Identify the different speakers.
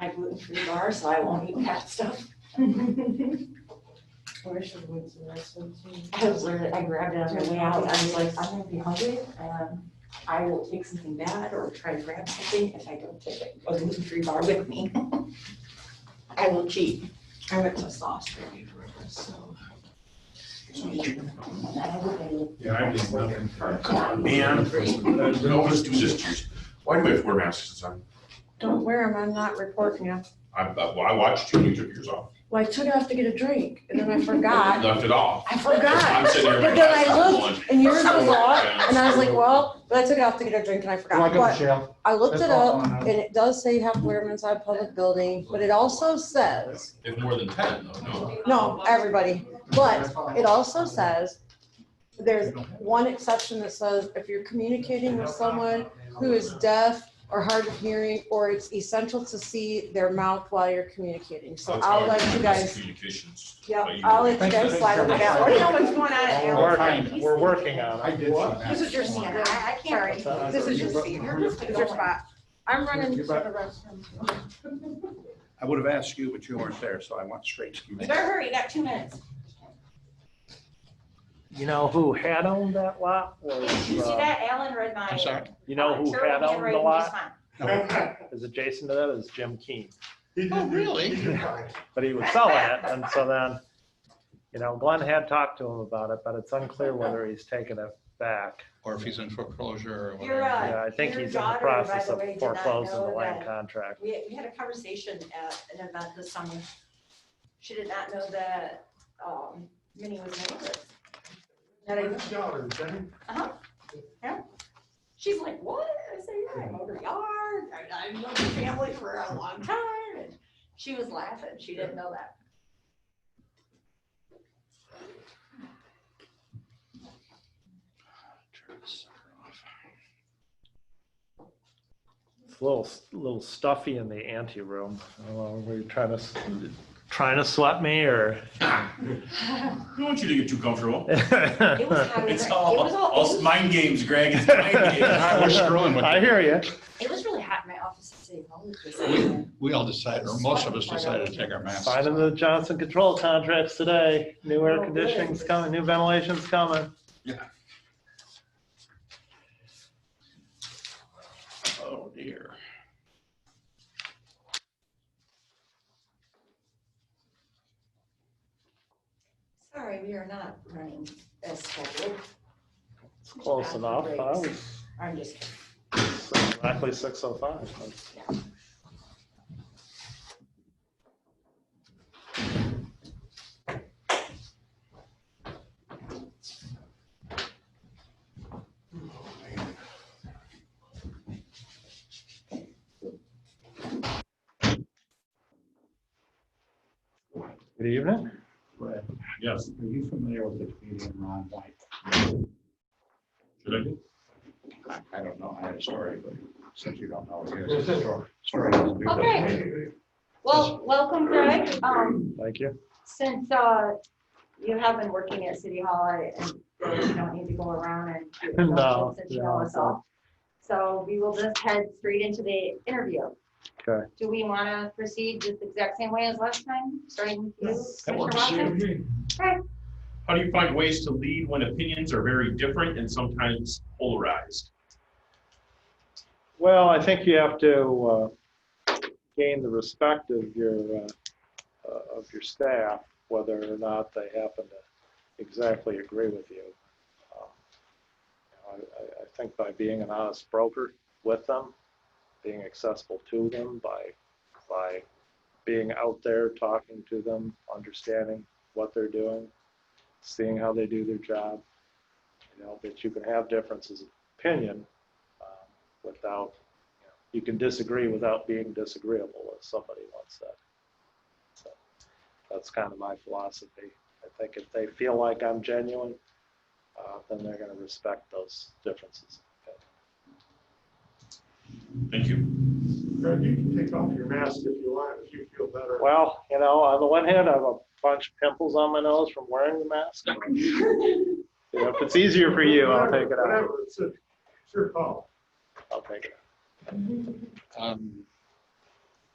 Speaker 1: my gluten-free bar, so I won't eat that stuff.
Speaker 2: Or I should wait till next one too.
Speaker 1: I was literally, I grabbed it on my way out, I was like, I'm gonna be hungry, and I will take something bad or try to grab something if I don't take a gluten-free bar with me. I will cheat. I went to sauce for me for this, so. And I will be-
Speaker 3: Yeah, I did nothing.
Speaker 4: Come on, man. We always do this to yours. Why do we have to wear masks this time?
Speaker 5: Don't wear them, I'm not reporting you.
Speaker 4: I, I- uh, well, I watched you, and you took yours off.
Speaker 5: Well, I took it off to get a drink, and then I forgot,
Speaker 4: You Left it off.
Speaker 5: I forgot,
Speaker 4: I'm sitting there.
Speaker 5: But then I
Speaker 4: I'm
Speaker 5: looked,
Speaker 4: going,
Speaker 5: and yours was off,
Speaker 4: Yeah.
Speaker 5: and I was like, well, but I took it off to get a drink and I forgot,
Speaker 3: Like a
Speaker 5: but
Speaker 3: shell.
Speaker 5: I looked it
Speaker 3: That's all
Speaker 5: up,
Speaker 3: I know.
Speaker 5: and it does say you have to wear them inside public building, but it also says,
Speaker 4: If more than ten, though, no.
Speaker 5: no, everybody, but it also says, there's one exception that says if you're communicating with someone who is deaf or hard of hearing, or it's essential to see their mouth while you're communicating, so
Speaker 4: That's how
Speaker 5: I'll
Speaker 4: I
Speaker 5: let
Speaker 4: do
Speaker 5: you
Speaker 4: mass
Speaker 5: guys,
Speaker 4: Communications.
Speaker 5: yeah, I'll let you guys slide on that, or you know what's going on at
Speaker 3: We're
Speaker 5: your
Speaker 3: working, we're working on it.
Speaker 6: I did see that.
Speaker 1: This is your scene, I, I can't.
Speaker 3: Sorry.
Speaker 5: This is your seat. It's your spot. I'm running to
Speaker 6: You're
Speaker 5: the
Speaker 6: back.
Speaker 5: restroom.
Speaker 6: I would have asked you, but you weren't there, so I went straight to you.
Speaker 1: You better hurry, you got two minutes.
Speaker 3: You know who had owned that lot was,
Speaker 1: Did you see
Speaker 3: uh,
Speaker 1: that? Alan read my.
Speaker 6: I'm sorry.
Speaker 3: you know who
Speaker 1: Sure,
Speaker 3: had owned the
Speaker 1: handwriting just
Speaker 3: lot?
Speaker 1: fine.
Speaker 6: No.
Speaker 3: Is adjacent to that is Jim Keane.
Speaker 6: Oh, really?
Speaker 3: But he was selling it and so then, you know, Glenn had talked to him about it, but it's unclear whether he's taken it back.
Speaker 6: Or if he's in foreclosure or
Speaker 1: You're,
Speaker 6: whatever.
Speaker 1: uh,
Speaker 3: Yeah, I think
Speaker 1: your
Speaker 3: he's in the
Speaker 1: daughter, by
Speaker 3: process
Speaker 1: the
Speaker 3: of
Speaker 1: way, did not
Speaker 3: foreclosing the
Speaker 1: know
Speaker 3: land
Speaker 1: that-
Speaker 3: contract.
Speaker 1: We, we had a conversation at an event this summer. She did not know that, um, Minnie was neighbors. That I, uh-huh, yeah. She's like, what? I said, yeah, I mowed her yard, I, I've known the family for a long time, and she was laughing, she didn't know that.
Speaker 3: It's a little, little stuffy in the ante room. I don't know, were you trying to, s- trying to sweat me or?
Speaker 4: Ah, I don't want you to get too comfortable.
Speaker 1: It was kind of, it
Speaker 4: It's all,
Speaker 1: was all,
Speaker 4: all
Speaker 1: it was-
Speaker 4: mind games, Greg. It's mind games.
Speaker 6: I was screwing with
Speaker 3: I
Speaker 6: you.
Speaker 3: hear you.
Speaker 1: it was really hot in my office today. all of this.
Speaker 6: We all decided, or most of us decided to take our masks. off.
Speaker 3: Signing the Johnson Control contracts today. New air conditioning's coming, new ventilation's coming.
Speaker 4: Oh, dear.
Speaker 1: Sorry, we are not running as scheduled,
Speaker 3: It's close enough. I was
Speaker 1: I'm just kidding.
Speaker 3: exactly six oh five. Good evening.
Speaker 6: Brett,
Speaker 4: Yes.
Speaker 6: Are you familiar with the comedian Ron White?
Speaker 4: Should I do?
Speaker 6: I I don't know, I had a story, but since you don't know, here's the story. Story.
Speaker 1: Okay. Well, welcome Greg. Um,
Speaker 3: Thank you.
Speaker 1: since, uh, you have been working at City Hall I- and you don't need to go around and do
Speaker 3: No,
Speaker 1: introductions since you know
Speaker 3: no,
Speaker 1: us all. So we will just head straight into the interview.
Speaker 3: Okay.
Speaker 1: Do we want to proceed just the exact same way as last time, starting with you?
Speaker 4: That
Speaker 1: Mr.
Speaker 4: works.
Speaker 1: Watkins?
Speaker 4: How do you find ways to lead when opinions are very different and sometimes polarized?
Speaker 3: Well, I think you have to uh, gain the respect of your, uh, uh, of your staff, whether or not they happen to exactly agree with you. Um, you know, I, I- I think by being an honest broker with them, being accessible to them, by, by being out there, talking to them, understanding what they're doing, seeing how they do their job, you know, that you can have differences of opinion, um, without, you know, you can disagree without being disagreeable, as somebody once said. So That's kind of my philosophy. I think if they feel like I'm genuine, uh, then they're gonna respect those differences.
Speaker 4: Thank you.
Speaker 7: Fred, you can take off your mask if you want, if you feel better.
Speaker 3: Well, you know, on the one hand, I have a bunch of pimples on my nose from wearing the mask. You know, If it's easier for you, I'll take it
Speaker 7: Whatever,
Speaker 3: out.
Speaker 7: It's a- it's your call.
Speaker 3: I'll take it.
Speaker 6: Um,